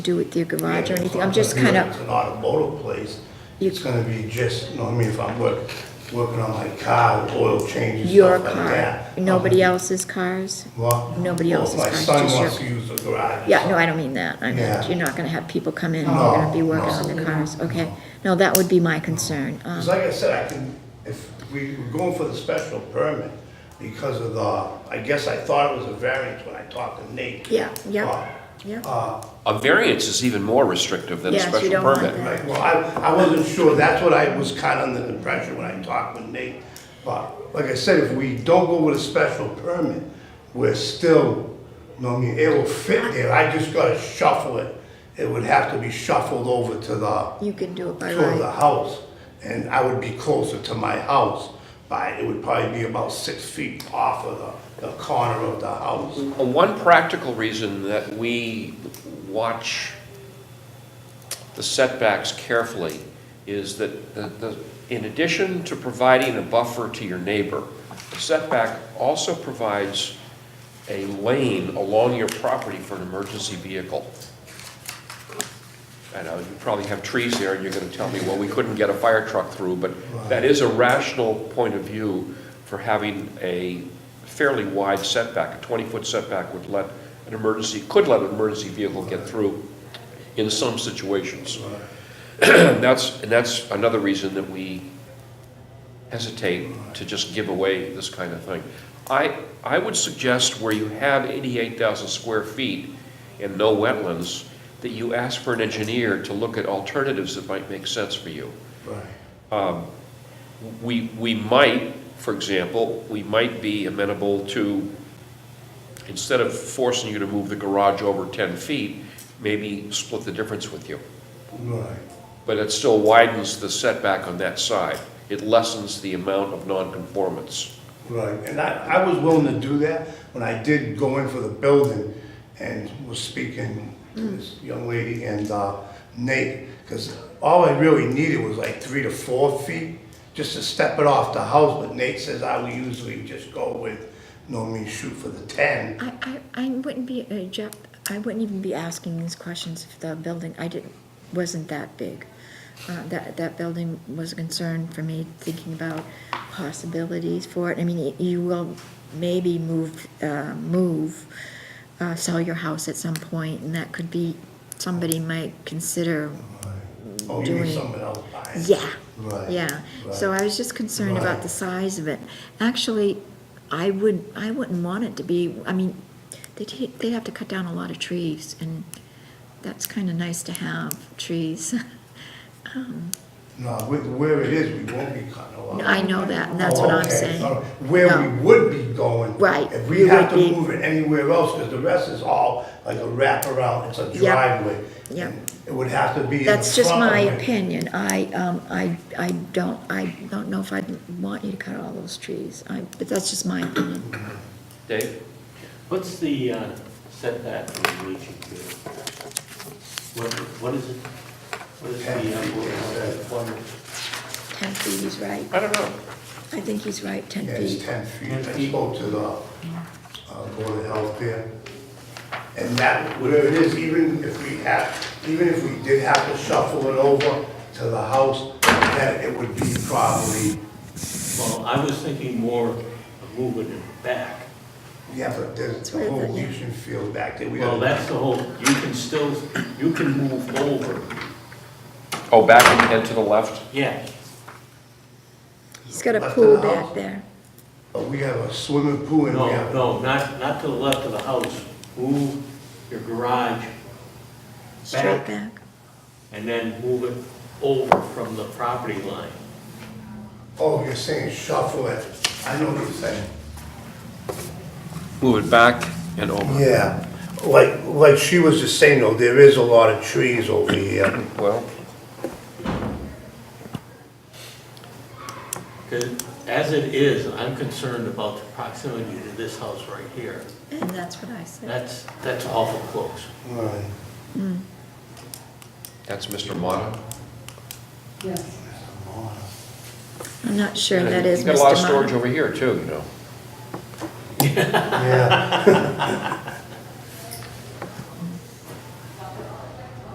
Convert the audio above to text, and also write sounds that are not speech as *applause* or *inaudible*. do with your garage or Yeah, anything, it's I'm not just gonna be kind like of, It's an automotive place. You- It's gonna be just, you know, what I mean, if I'm work, working on my car, oil changes, your stuff like car, that. nobody else's cars? What? nobody else's car, it's My just son your- wants to use the garage. Yeah, no, I don't mean that, I mean, Yeah. you're not gonna have people come in, who are gonna be No, working no. on their cars, okay? No, that would be my concern, um, Because like I said, I can, if we were going for the special permit because of the, I guess I thought it was a variance when I talked to Nate. yeah, yeah, Uh, yeah. A variance is even more restrictive than a Yes, you special don't want permit. that. Right, well, I, I wasn't sure, that's what I was kind of under the impression when I talked with Nate. But, like I said, if we don't go with a special permit, we're still, you know, what I mean, it will fit there, I just gotta shuffle it. It would have to be shuffled over to the, You can do it by to the right, house, and I would be closer to my house, by it would probably be about six feet off of the, the corner of the house. Uh, One practical reason that we watch the setbacks carefully is that the, the, in addition to providing a buffer to your neighbor, the setback also provides a lane along your property for an emergency vehicle. I know, you probably have trees there, and you're gonna tell me, well, we couldn't get a fire truck through, but that is a rational point of view for having a fairly wide setback, a twenty-foot setback would let an emergency, could let an emergency vehicle get through in some situations. And that's, and that's another reason that we hesitate to just give away this kind of thing. I, I would suggest where you have 88,000 square feet and no wetlands, that you ask for an engineer to look at alternatives that might make sense for you. Mm-hmm. Right. We, we might, for example, we might be amenable to, instead of forcing you to move the garage over 10 feet, maybe split the difference with you. Right. But it still widens the setback on that side. It lessens the amount of nonconformance. Right, and I, I was willing to do that when I did go in for the building and was speaking to this young lady and uh, Nate, because all I really needed was like three to four feet, just to step it off the house, but Nate says I would usually just go with, you know, what I mean, shoot for the ten. I, I, I wouldn't be, uh, Jeff, I wouldn't even be asking these questions if the building, I didn't, wasn't that big. Uh, that, that building was a concern for me, thinking about possibilities for it, I mean, y- you will maybe move, uh, move, uh, sell your house at some point, and that could be, somebody might consider, Oh, you mean Doing- someone else buying? yeah. Right. Yeah, so I was just concerned about Right. the size of it. Actually, I would, I wouldn't want it to be, I mean, they'd, ha- they'd have to cut down a lot of trees, and that's kind of nice to have, trees. *laughs* No, where, where it is, we won't be cutting a lot. I know that, and that's what Oh, I'm okay. saying. All right. Where we No. would be going. Right, If we you have to would be- move it anywhere else, because the rest is all like a wraparound, it's a Yep, driveway. yep. and It would have to be in the front. That's just my of it. opinion. I, um, I, I don't, I don't know if I'd want you to cut all those trees. I, but that's just my opinion. Dave? What's the uh, setback from the leaching field? What, what is it? What is Ten feet, the, it uh, Ten feet, he's right. I don't know. I think he's right, ten Yeah, it's feet. ten feet, Ten I feet. spoke to the, uh, Board of Health there. And that, whatever it is, even if we have, even if we did have to shuffle it over to the house, that it would be probably, well, I was thinking more of moving it back. yeah, but there's It's the right whole there, yeah. leaching field back there. We Well, gotta- that's the whole, you can still, you can move over, Oh, back and, and to the left? yeah. He's got a Left of pool the house. back there. But we have a swimming pool and we No, have. no, not, not to the left of the house. Move your garage Straight back back. and then move it over from the property line. Oh, you're saying shuffle it. I know what you're saying. Move it back and over. Yeah, like, like she was just saying though, there is a lot of trees over here. Well, Because as it is, I'm concerned about the proximity to this house right here. And that's what I said. That's, that's awful close. Right. that's Mr. Mata. Yes. I'm not sure that is You've got a lot of Mr. storage Martin. over here too, you know. Yeah.